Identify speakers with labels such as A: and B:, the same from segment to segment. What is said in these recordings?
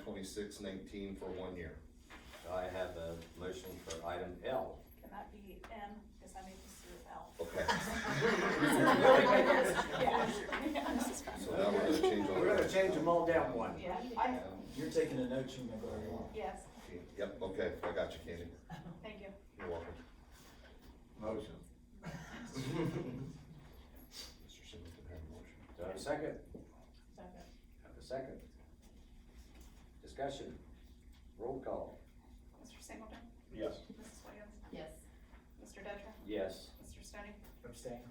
A: twenty-six nineteen for one year.
B: I have a motion for item L.
C: Cannot be M, because I made this through L.
A: Okay.
C: Yeah.
A: So now we're gonna change all.
D: We're gonna change them all down one.
C: Yeah, I,
D: You're taking the notes from everyone.
C: yes,
A: Yep, okay, I got you, Candy.
C: thank you.
A: You're welcome.
E: Motion.
A: Mr. Singleton had a motion.
B: Do I have a second?
C: Second.
B: Have a second. Discussion. Roll call.
C: Mr. Singleton?
E: Yes.
C: Mrs. Williams?
F: Yes.
C: Mr. Detra?
B: Yes.
C: Mr. Stoney?
D: Abstain.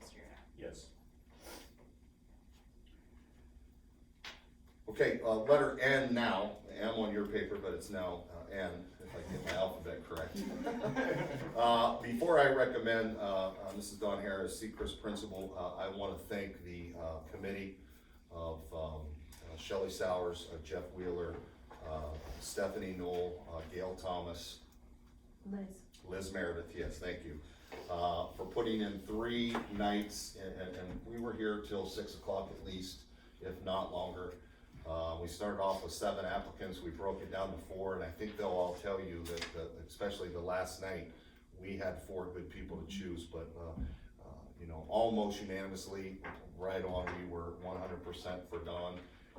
C: Mr. Yurda?
E: Yes.
A: Okay, uh, letter N now, M on your paper, but it's now, uh, N, if I get my alphabet correct. Uh, before I recommend, uh, uh, Mrs. Dawn Harris, Sechrist Principal, uh, I wanna thank the, uh, committee of, um, uh, Shelley Sowers, uh, Jeff Wheeler, uh, Stephanie Knoll, uh, Gail Thomas,
F: Liz.
A: Liz Meredith, yes, thank you, uh, for putting in three nights, and, and, and we were here till six o'clock at least, if not longer. Uh, we started off with seven applicants, we broke it down to four, and I think they'll all tell you that, that, especially the last night, we had four good people to choose, but, uh, uh, you know, almost unanimously, right on, we were one hundred percent for Dawn.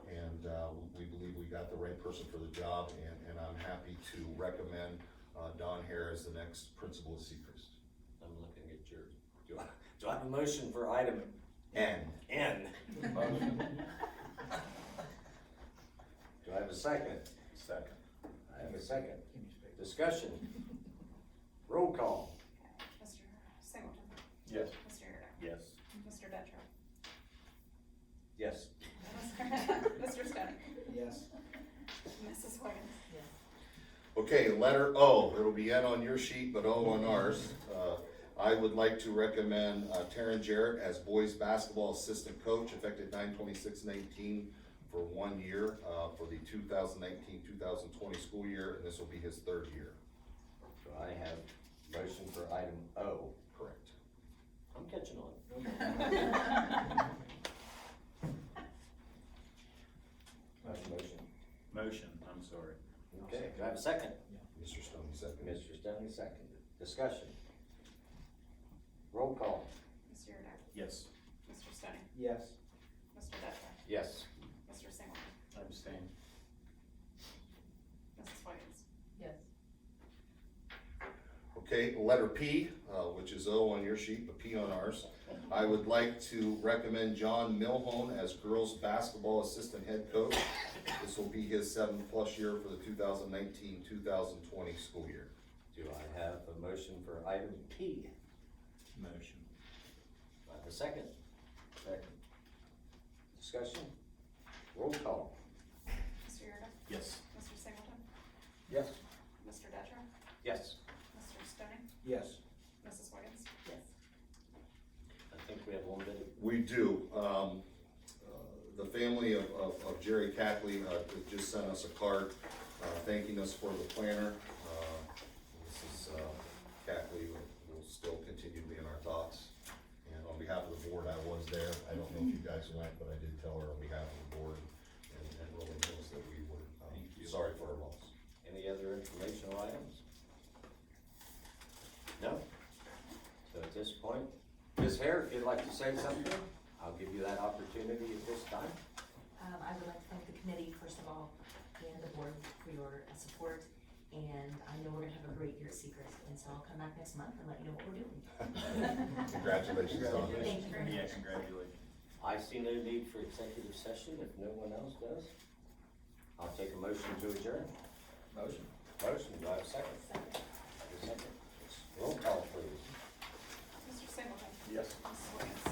A: And, uh, we believe we got the right person for the job, and, and I'm happy to recommend, uh, Don Hare as the next principal of Seacrest.
B: I'm looking at your, do I, do I have a motion for item
A: And
B: N?
E: Motion.
B: Do I have a second?
E: Second.
B: I have a second.
D: Give me space.
B: Discussion. Roll call.
C: Mr. Singleton?
E: Yes.
C: Mr. Yurda?
E: Yes.
C: Mr. Detra?
B: Yes.
C: Mr. Stoney?
D: Yes.
C: Mrs. Williams?
F: Yes.
A: Okay, letter O, it'll be N on your sheet, but O on ours. Uh, I would like to recommend uh, Taryn Jarrett as boys' basketball assistant coach, effective nine twenty-six nineteen for one year, uh, for the 2019-2020 school year, and this will be his third year.
B: Do I have motion for item O?
A: Correct.
B: I'm catching on. I have a motion.
E: Motion, I'm sorry.
B: Okay, do I have a second?
A: Mr. Stone, second.
B: Mr. Stoney, second. Discussion. Roll call.
C: Mr. Yurda?
E: Yes.
C: Mr. Stoney?
D: Yes.
C: Mr. Detra?
B: Yes.
C: Mr. Singleton?
E: Abstain.
C: Mrs. Williams?
F: Yes.
A: Okay, letter P, uh, which is O on your sheet, but P on ours. I would like to recommend John Milhone as girls' basketball assistant head coach. This will be his seventh-plus year for the 2019-2020 school year.
B: Do I have a motion for item P?
E: Motion.
B: Do I have a second? Second. Discussion. Roll call.
C: Mr. Yurda?
E: Yes.
C: Mr. Singleton?
B: Yes.
C: Mr. Detra?
B: Yes.
C: Mr. Stoney?
D: Yes.
C: Mrs. Williams?
F: Yes.
B: I think we have one bit of,
A: We do. Um, uh, The family of, of of Jerry Cackley uh, just sent us a card uh, thanking us for the planner. Uh, This is uh, Cackley, will will still continue to be in our thoughts. And on behalf of the board, I was there. I don't know if you guys went, but I did tell her on behalf of the board and and Rolling Hills that we were um,
B: Thank you.
A: sorry for her loss.
B: any other informational items? No? So at this point, Ms. Hare, if you'd like to say something, I'll give you that opportunity at this time.
F: Um, I would like to thank the committee, first of all, and the board for your uh, support. And I know we're gonna have a great year at Seacrest, and so I'll come back next month and let you know what we're doing.
A: Congratulations, Don.
F: Thank you very much.
E: Yeah, congratulations.
B: I see no need for executive session if no one else does. I'll take a motion to adjourn.
D: Motion.
B: Motion, do I have a second? Have a Second. Roll call, please.
C: Mr. Singleton?
E: Yes.
C: Mrs. Williams?